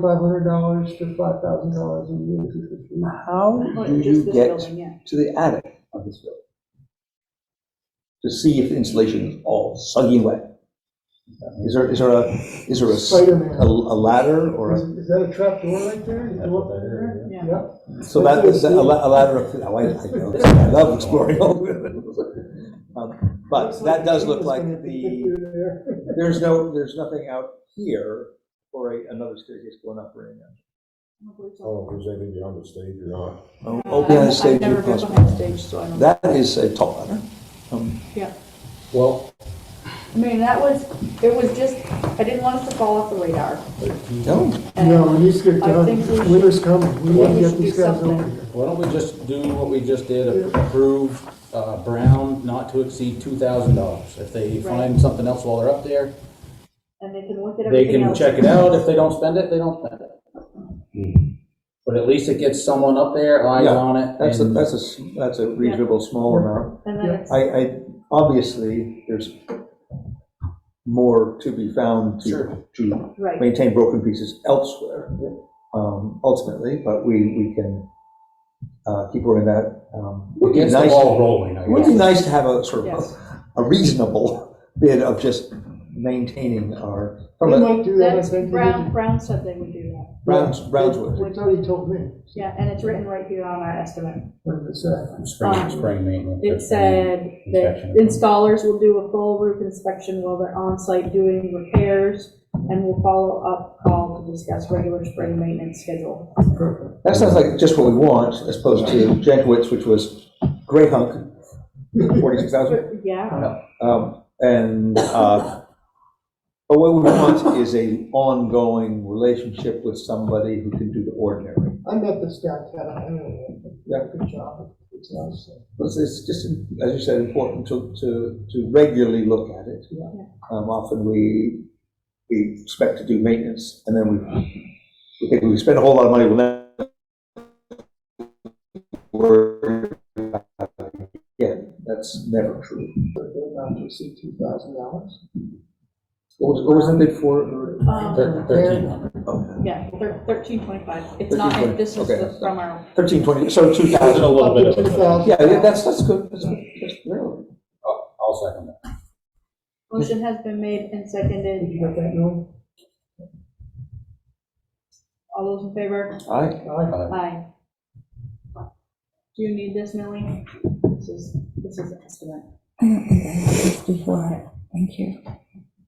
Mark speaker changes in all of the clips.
Speaker 1: five hundred dollars to five thousand dollars a year to fifteen.
Speaker 2: How
Speaker 3: Well,
Speaker 2: do you
Speaker 3: just Oh, this
Speaker 2: get
Speaker 3: building, yeah.
Speaker 2: to the attic of this building? To see if the insulation is all soggy wet? Is there, is there a, is there a s-
Speaker 1: Spider-Man.
Speaker 2: a, a ladder or
Speaker 1: Is
Speaker 2: a,
Speaker 1: is that a trap door right there? You go up there?
Speaker 3: Yeah.
Speaker 1: Yep.
Speaker 2: so that is a la- a ladder of, oh, I, I know, I love exploring all of it. Um, But that does look like the, there's no, there's nothing out here for a, another staircase going up or anything.
Speaker 4: Oh, if there's anything beyond the stage or not.
Speaker 2: Oh,
Speaker 3: Uh,
Speaker 2: Open on the
Speaker 3: I've
Speaker 2: stage.
Speaker 3: never
Speaker 2: if
Speaker 3: been
Speaker 2: possible.
Speaker 3: behind stage, so I don't.
Speaker 2: That is a tall ladder. Um,
Speaker 3: Yeah,
Speaker 4: Well,
Speaker 3: I mean, that was, it was just, I didn't want us to fall off the radar. Mm-hmm.
Speaker 2: No,
Speaker 3: And
Speaker 1: No, it needs to get
Speaker 3: I
Speaker 1: done.
Speaker 3: think we should-
Speaker 1: Winter's coming. We
Speaker 3: we
Speaker 1: need to
Speaker 3: should
Speaker 1: get
Speaker 3: do
Speaker 1: these guys
Speaker 3: something.
Speaker 1: over here.
Speaker 5: Why don't we just do what we just did, approve uh, Brown not to exceed $2,000? If they find something else while they're up there,
Speaker 3: And they can look at
Speaker 5: they
Speaker 3: everything
Speaker 5: can
Speaker 3: else.
Speaker 5: check it out. If they don't spend it, they don't spend it. But at least it gets someone up there, eyes
Speaker 2: Hmm. Yeah,
Speaker 5: on it.
Speaker 2: that's a,
Speaker 5: and-
Speaker 2: that's a, s- that's a reasonable small amount.
Speaker 3: And then it's,
Speaker 2: I, I, obviously, there's more to be found to,
Speaker 5: Sure.
Speaker 2: to
Speaker 3: right,
Speaker 2: maintain broken pieces elsewhere, um, ultimately, but we, we can, uh, keep working that. um, It would be
Speaker 5: Gets the
Speaker 2: nice,
Speaker 5: ball
Speaker 2: it
Speaker 5: rolling, I
Speaker 2: would be
Speaker 5: guess.
Speaker 2: nice to have a sort of
Speaker 3: Yes.
Speaker 2: a- a reasonable bid of just maintaining our, from
Speaker 1: We
Speaker 2: a
Speaker 1: might do that, I
Speaker 3: that's,
Speaker 1: think.
Speaker 3: Brown, Brown said they would do that.
Speaker 2: Browns, Brownswood.
Speaker 1: That's what he told me.
Speaker 3: Yeah, and it's written right here on our estimate.
Speaker 1: What did it say?
Speaker 5: Spring, spring maintenance.
Speaker 3: It said that
Speaker 5: Inspection.
Speaker 3: installers will do a full roof inspection while they're on site doing repairs and will follow up call to discuss regular spring maintenance schedule.
Speaker 2: That sounds like just what we want, as opposed to Jankowitz, which was gray hunk, forty-six thousand.
Speaker 3: Yeah,
Speaker 2: Um, and, uh, but what we want is a ongoing relationship with somebody who can do the ordinary.
Speaker 1: I met this guy, Ted. I don't know.
Speaker 2: Yeah.
Speaker 1: Good job. It's awesome.
Speaker 2: It's, it's just, as you said, important to, to, to regularly look at it.
Speaker 1: Yeah.
Speaker 2: Um, often we, we expect to do maintenance, and then we, we think we spend a whole lot of money, we'll never worry about it again. That's never true.
Speaker 1: But they're not to see two thousand dollars.
Speaker 2: What was, what was the bid for?
Speaker 3: um,
Speaker 5: Thirteen hundred.
Speaker 3: yeah, thirteen twenty-five. It's not, it- this is
Speaker 2: 13.25,
Speaker 3: the- from our,
Speaker 2: Thirteen twenty, so two thousand.
Speaker 5: A little bit of
Speaker 1: Two
Speaker 5: a,
Speaker 1: thousand.
Speaker 2: Yeah, yeah, that's, that's good, that's good, that's real.
Speaker 5: I'll second that.
Speaker 3: motion has been made and
Speaker 1: Did
Speaker 3: seconded.
Speaker 1: you get that, Noel?
Speaker 3: All those in favor?
Speaker 2: All right,
Speaker 1: Aye.
Speaker 3: Aye. Do you need this, Millie? This is, this is an estimate.
Speaker 6: I don't think I have this before. Thank you.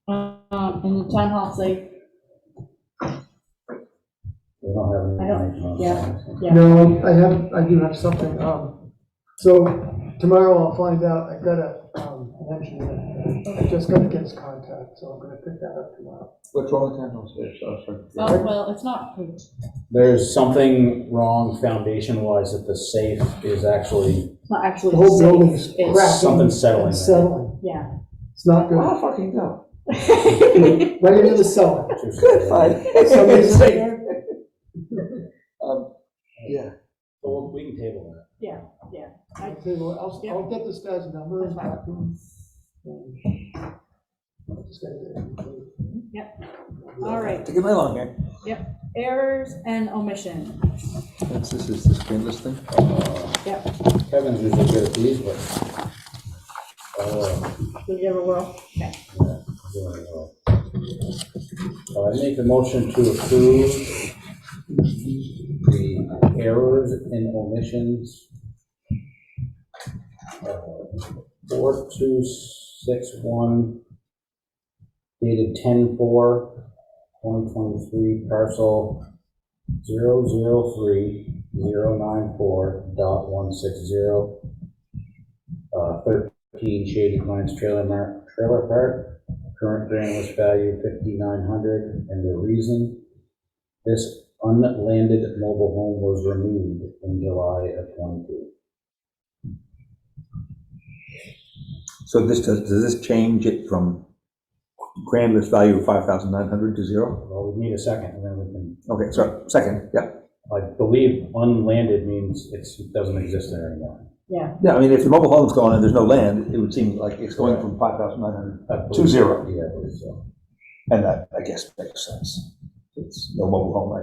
Speaker 3: Um, and the town hall safe,
Speaker 5: We don't have any
Speaker 3: I don't-
Speaker 5: information on
Speaker 3: yeah.
Speaker 5: that.
Speaker 3: Yeah.
Speaker 1: No, I have, I do have something, um, so tomorrow I'll find out, I got a, um, an engineer, I just gotta get his contact, so I'm gonna pick that up tomorrow.
Speaker 2: what's wrong with that? Oh, sorry.
Speaker 3: oh, well, it's not approved.
Speaker 5: There's something wrong foundation-wise that the safe is actually,
Speaker 3: It's not actually
Speaker 1: The whole
Speaker 3: safe.
Speaker 1: building is
Speaker 3: It's-
Speaker 1: cracking.
Speaker 5: Something's settling.
Speaker 1: It's settling,
Speaker 3: Yeah.
Speaker 1: it's not good,
Speaker 2: Wow, fucking go.
Speaker 1: right into the cellar.
Speaker 2: Good fight.
Speaker 1: Somebody's in there.
Speaker 2: Um, Yeah.
Speaker 5: Well, we can table that.
Speaker 1: I tell you what, I'll, I'll get this guy's number and talk to him. And I'll just gotta get it.
Speaker 3: All right,
Speaker 2: Taking my long hair.
Speaker 3: errors and omission.
Speaker 2: That's, this is the screenless thing.
Speaker 5: Kevin's usually good at these, but. uh,
Speaker 3: Did you ever whirl? Okay.
Speaker 5: doing well. Uh, I make a motion to approve the errors and omissions. uh, Four, two, six, one, dated ten, four, twenty twenty-three, parcel zero, zero, three, zero, nine, four, dot, one, six, zero. Uh, thirteen Shady Pines Trailer Mar, Trailer Park, current groundless value fifty-nine hundred, and the reason this unlanded mobile home was removed in July of twenty-two.
Speaker 2: So this, does, does this change it from grand list value of five thousand nine hundred to zero?
Speaker 5: Well, we need a second, and then we can,
Speaker 2: Okay, so, second, yeah.
Speaker 5: I believe unlanded means it's, it doesn't exist there anymore.
Speaker 2: Yeah, I mean, if the mobile home's gone and there's no land, it would seem like it's going from five thousand nine hundred,
Speaker 5: I believe-
Speaker 2: To zero.
Speaker 5: Yeah, I believe so.
Speaker 2: and that, I guess, makes sense. It's no mobile home, I